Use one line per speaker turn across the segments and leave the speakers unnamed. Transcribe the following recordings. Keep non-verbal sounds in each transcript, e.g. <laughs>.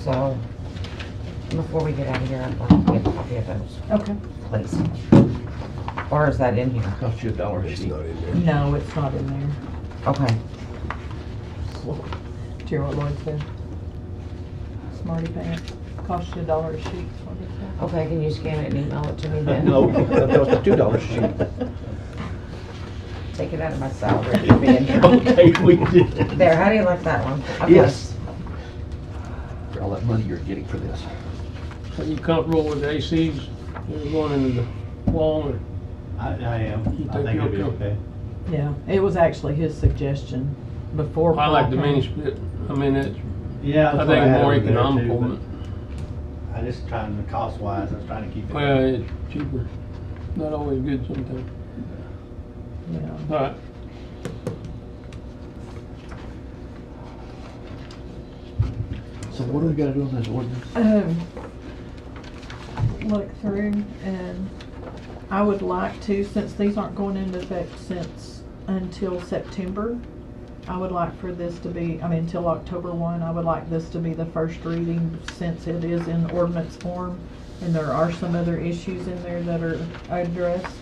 So before we get out of here, I'd like to get a copy of those,
Okay.
please. Or is that in here?
Cost you a dollar a
It's
sheet.
not in there.
No, it's not in there.
Okay.
Do you hear what Lloyd said? Smarty pants, cost you a dollar a sheet, is what he said.
Okay, can you scan it and email it to me then?
<laughs> No, that cost a two dollar sheet.
Take it out of my salary. It'll be in here.
<laughs> <laughs> Okay, we did.
There, how do you like that one? Okay.
Yes. For all that money you're getting for this.
Are you comfortable with the ACs going into the wall or?
I, I am.
You
I think
think
it'll be
you'll go?
okay.
<laughs> Yeah, it was actually his suggestion before.
I like
Paul
the
came.
mini split. I mean, it's,
Yeah.
I
that's what
think
had
more
over there too,
economical,
but
but,
I just trying to cost wise, I was trying to keep it.
well, it's cheaper. Not always good sometimes.
Yeah.
All right.
So what do we gotta do on this ordinance?
um, look through and I would like to, since these aren't going into effect since, until September, I would like for this to be, I mean, until October one, I would like this to be the first reading since it is in ordinance form. And there are some other issues in there that are addressed.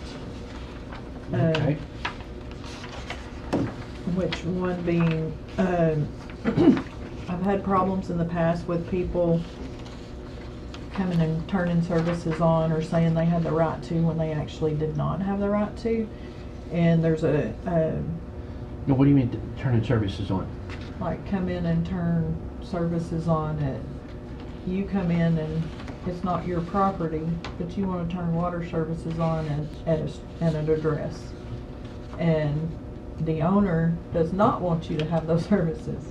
Uh,
Okay.
which one being, um, <clears throat> I've had problems in the past with people coming and turning services on or saying they had the right to when they actually did not have the right to. And there's a, um,
No, what do you mean t- turning services on?
like come in and turn services on it. You come in and it's not your property, but you wanna turn water services on at, at a, s- at an address. And the owner does not want you to have those <laughs> services.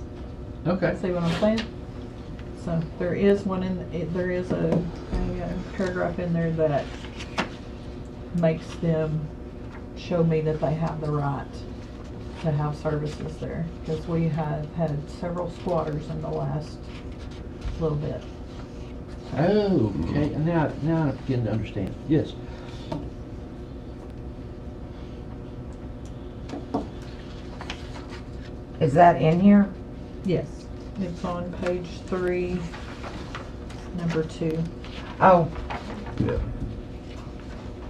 Okay.
See what I'm saying? So there is one in, it- there is a, a uh, paragraph in there that makes them show me that they have the right to have services there. Because we have had several squatters in the last little bit.
Oh, okay, now, now I'm beginning to understand, yes.
Is that in here?
Yes. It's on page three, number two.
Oh,
Yeah.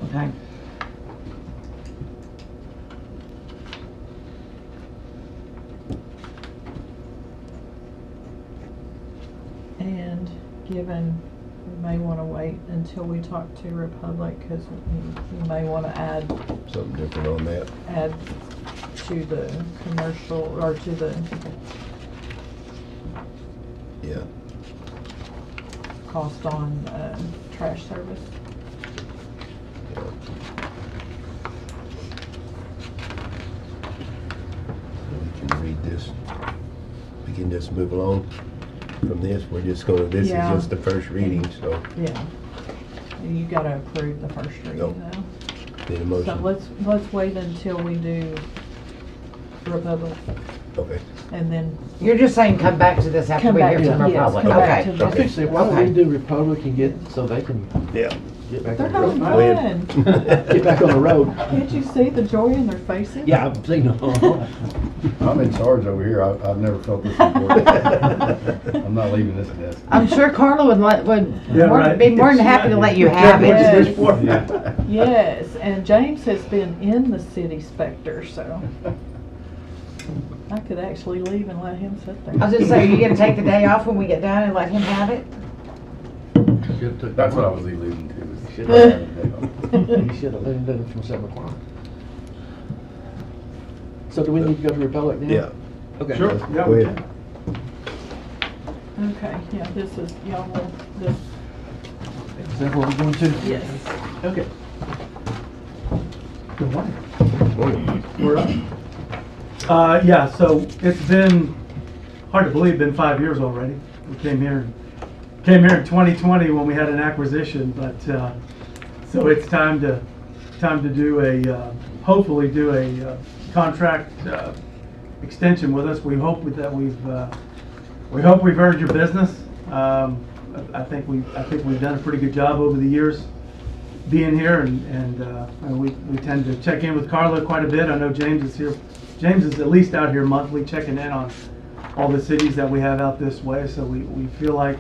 okay.
And given, we may want to wait until we talk to Republic because we we may want to add
Something different on that.
add to the commercial, or to the,
Yeah.
cost on, uh, trash service.
We can read this. We can just move along from this. We're just gonna, this is
Yeah.
just the first reading, so
Yeah. You gotta approve the first
No.
reading though.
need a
So
motion.
let's, let's wait until we do Republic
Okay.
and then,
You're just saying come back to this after
Come
we
back
hear
to-
from
yes,
Republic?
come back
Okay.
to-
I think say, why don't
Okay.
we do Republic and get, so they can
Yeah.
get back
they're
on the road?
having
Go ahead. <laughs>
fun.
Get back on the road.
<laughs> Can't you see the joy in their faces? <laughs>
Yeah, I've seen them.
I'm in charge over here. I, I've never felt this
<laughs>
before. I'm not leaving this desk. <laughs>
I'm sure Carla would let, would
Yeah,
more-
right.
be more than happy to let
<laughs>
you have
Yeah.
it.
Yes.
Yeah.
Yes, and James has been in the city specter, so I could actually leave and let him sit there.
I was just saying, you gonna take the day off when we get done and let him have it?
That's what I was alluding to.
Shit.
is I had a day off.
You should have let him do it from seven o'clock. So do we need to go to Republic now?
Yeah.
Okay.
Sure. Yeah,
Go
we
ahead.
Okay, yeah, this is, y'all will, this,
Is that what we're going to?
yes.
Okay. Good morning.
We're up. Uh, yeah, so it's been, hard to believe, been five years already. We came here, came here in 2020 when we had an acquisition, but, uh, so it's time to, time to do a, uh, hopefully do a uh, contract uh, extension with us. We hope that we've, uh, we hope we've earned your business. Um, I- I think we, I think we've done a pretty good job over the years being here and, and uh, and we, we tend to check in with Carla quite a bit. I know James is here. James is at least out here monthly checking in on all the cities that we have out this way. So we, we feel like